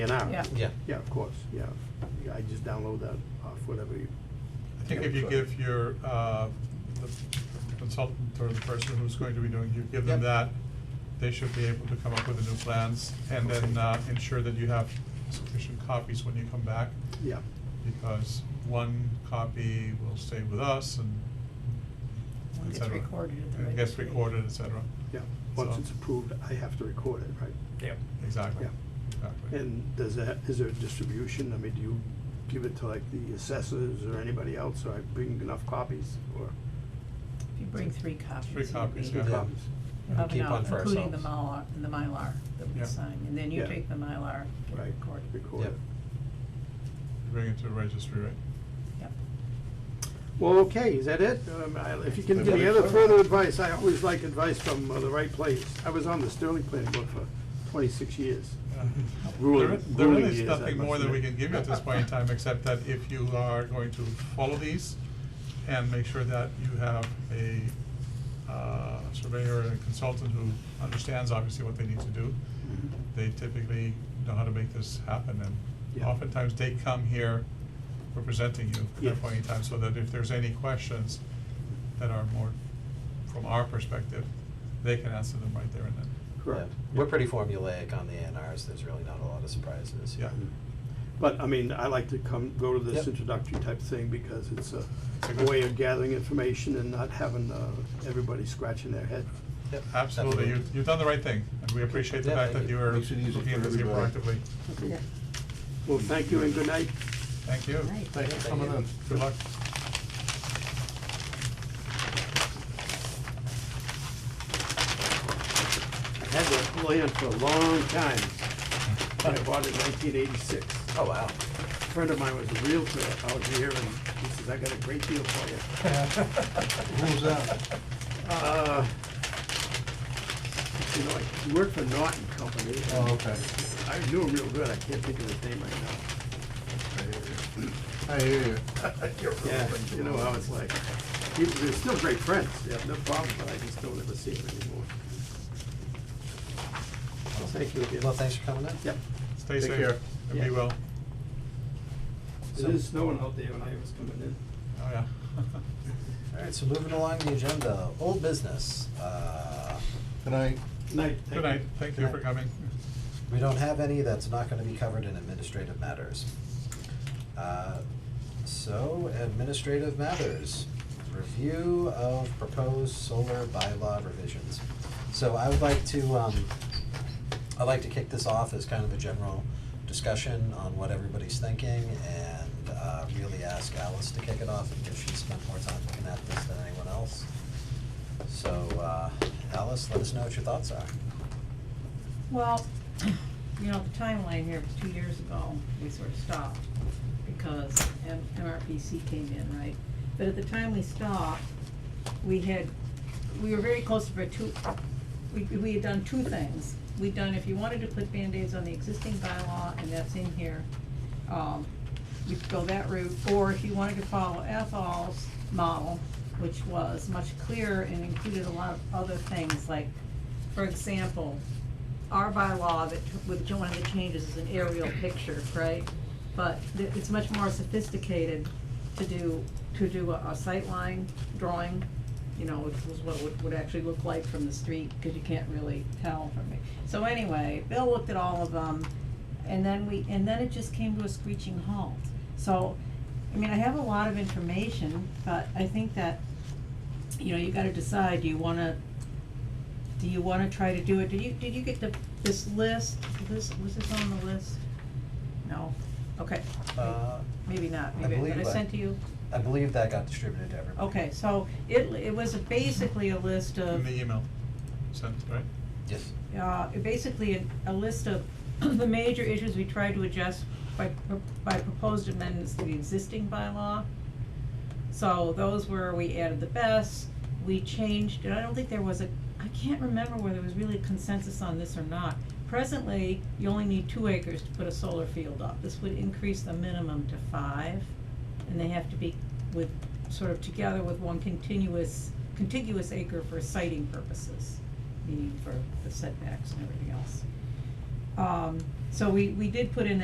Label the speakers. Speaker 1: and R.
Speaker 2: Yeah.
Speaker 3: Yeah.
Speaker 1: Yeah, of course, yeah. Yeah, I just download that off whatever you,
Speaker 4: I think if you give your, uh, the consultant or the person who's going to be doing, you give them
Speaker 3: Yep.
Speaker 4: that, they should be able to come up with the new plans, and then, uh, ensure that you have sufficient copies when you come back,
Speaker 1: yeah.
Speaker 4: because one copy will stay with us and
Speaker 2: One
Speaker 4: et
Speaker 2: gets
Speaker 4: cetera.
Speaker 2: recorded at the
Speaker 4: And Gets
Speaker 2: registry.
Speaker 4: recorded, et cetera.
Speaker 1: Yeah, once
Speaker 4: So-
Speaker 1: it's approved, I have to record it, right?
Speaker 5: Yep.
Speaker 4: Exactly,
Speaker 1: Yeah.
Speaker 4: exactly.
Speaker 1: And does that, is there a distribution? I mean, do you give it to like the assessors or anybody else, or I bring enough copies or
Speaker 2: If you bring three copies,
Speaker 4: Three
Speaker 2: you'll
Speaker 4: copies,
Speaker 2: be-
Speaker 4: yeah.
Speaker 1: two copies?
Speaker 2: you'll have
Speaker 3: Keep
Speaker 2: enough,
Speaker 3: one for
Speaker 2: including the Mylar,
Speaker 3: ourselves.
Speaker 2: the Mylar that we
Speaker 4: Yeah.
Speaker 2: sign, and then you
Speaker 1: Yeah.
Speaker 2: take the Mylar, get it
Speaker 1: Right,
Speaker 2: recorded.
Speaker 1: record
Speaker 3: Yep.
Speaker 1: it.
Speaker 4: Bring it to the registry, right?
Speaker 2: Yep.
Speaker 1: Well, okay, is that it? Um, I- If you can give me
Speaker 3: Another
Speaker 1: other
Speaker 3: question?
Speaker 1: further advice, I always like advice from uh, the right place. I was on the Sterling Planning Board for twenty-six years.
Speaker 4: Yeah.
Speaker 1: Ruling-
Speaker 4: There is- There
Speaker 1: ruling
Speaker 4: is
Speaker 1: is, I
Speaker 4: nothing
Speaker 1: must
Speaker 4: more that we
Speaker 1: admit.
Speaker 4: can give you at this point in time, except that if you are going to follow these and make sure that you have a uh, surveyor and consultant who understands obviously what they need to do.
Speaker 1: Mm-hmm.
Speaker 4: They typically know how to make this happen, and
Speaker 1: Yeah.
Speaker 4: oftentimes they come here representing you at
Speaker 1: Yes.
Speaker 4: that point in time, so that if there's any questions that are more from our perspective, they can answer them right there and then.
Speaker 1: Correct.
Speaker 3: Yeah. We're pretty formulaic on the A and Rs, there's really not a lot of surprises.
Speaker 4: Yeah.
Speaker 1: But, I mean, I like to come, go to this
Speaker 3: Hmm. Yep.
Speaker 1: introductory type thing because it's a
Speaker 4: It's a
Speaker 1: a
Speaker 4: good-
Speaker 1: way of gathering information and not having uh, everybody scratching their head.
Speaker 3: Yep,
Speaker 4: Absolutely, you, you've done the right thing, and we appreciate the
Speaker 3: Yeah,
Speaker 4: fact
Speaker 3: thank
Speaker 4: that
Speaker 3: you.
Speaker 4: you are
Speaker 6: Makes it easy
Speaker 4: looking at
Speaker 6: for
Speaker 4: this here
Speaker 6: everybody.
Speaker 4: proactively.
Speaker 1: Well, thank you and good night.
Speaker 4: Thank you.
Speaker 2: Right.
Speaker 6: Thanks for
Speaker 3: Thank
Speaker 6: coming
Speaker 3: you.
Speaker 6: in.
Speaker 4: Good luck.
Speaker 1: I had that land for a long time. I bought it in nineteen eighty-six.
Speaker 3: Oh, wow.
Speaker 1: A friend of mine was a realtor out here and he says, I got a great deal for you.
Speaker 6: Who's that?
Speaker 1: Uh, You know, I- he worked for Norton Company.
Speaker 6: Oh, okay.
Speaker 1: I knew him real good, I can't think of his name right now.
Speaker 6: I hear you.
Speaker 1: Yeah, you know how it's like. He, we're still great friends, yeah, no problem, but I just don't ever see him anymore. Well, thank you again.
Speaker 3: Well, thanks for coming in.
Speaker 1: Yep.
Speaker 4: Stay
Speaker 6: Take
Speaker 4: safe.
Speaker 6: care.
Speaker 4: And
Speaker 1: Yeah.
Speaker 4: be well.
Speaker 1: It is snowing out there when I was coming in.
Speaker 4: Oh, yeah.
Speaker 3: All right, so moving along the agenda, old business. Uh,
Speaker 6: Good night.
Speaker 1: Good Night. thank you.
Speaker 4: Good night, thank you
Speaker 3: Good
Speaker 4: for
Speaker 3: night.
Speaker 4: coming.
Speaker 3: We don't have any, that's not gonna be covered in administrative matters. Uh, So, administrative matters, review of proposed solar bylaw revisions. So I would like to, um, I'd like to kick this off as kind of a general discussion on what everybody's thinking and, uh, really ask Alice to kick it off because she spent more time looking at this than anyone else. So, uh, Alice, let us know what your thoughts are.
Speaker 2: Well, you know, the timeline here was two years ago, we sort of stopped because M- MRPC came in, right? But at the time we stopped, we had, we were very close for two, we, we had done two things. We'd done, if you wanted to put Band-Aids on the existing bylaw, and that's in here, um, you could go that route. Or if you wanted to follow Ethol's model, which was much clearer and included a lot of other things, like, for example, our bylaw that, with one of the changes is an aerial picture, right? But th- it's much more sophisticated to do, to do a, a sightline drawing, you know, which was what would, would actually look like from the street, cause you can't really tell from it. So anyway, Bill looked at all of them, and then we, and then it just came to a screeching halt. So, I mean, I have a lot of information, but I think that, you know, you gotta decide, do you wanna do you wanna try to do it, did you, did you get the, this list, this, was this on the list? No, okay,
Speaker 3: Uh,
Speaker 2: maybe not,
Speaker 3: I
Speaker 2: maybe,
Speaker 3: believe
Speaker 2: did I
Speaker 3: I-
Speaker 2: send to you?
Speaker 3: I believe that got distributed to everybody.
Speaker 2: Okay, so it, it was basically a list
Speaker 4: In
Speaker 2: of,
Speaker 4: the email sent, right?
Speaker 3: Yes.
Speaker 2: uh, basically a, a list of the major issues we tried to adjust by, pro- by proposed amendments to the existing bylaw. So those were, we added the best, we changed, and I don't think there was a, I can't remember whether there was really consensus on this or not. Presently, you only need two acres to put a solar field up. This would increase the minimum to five, and they have to be with, sort of together with one continuous, contiguous acre for siting purposes, meaning for the setbacks and everything else. Um, so we, we did put in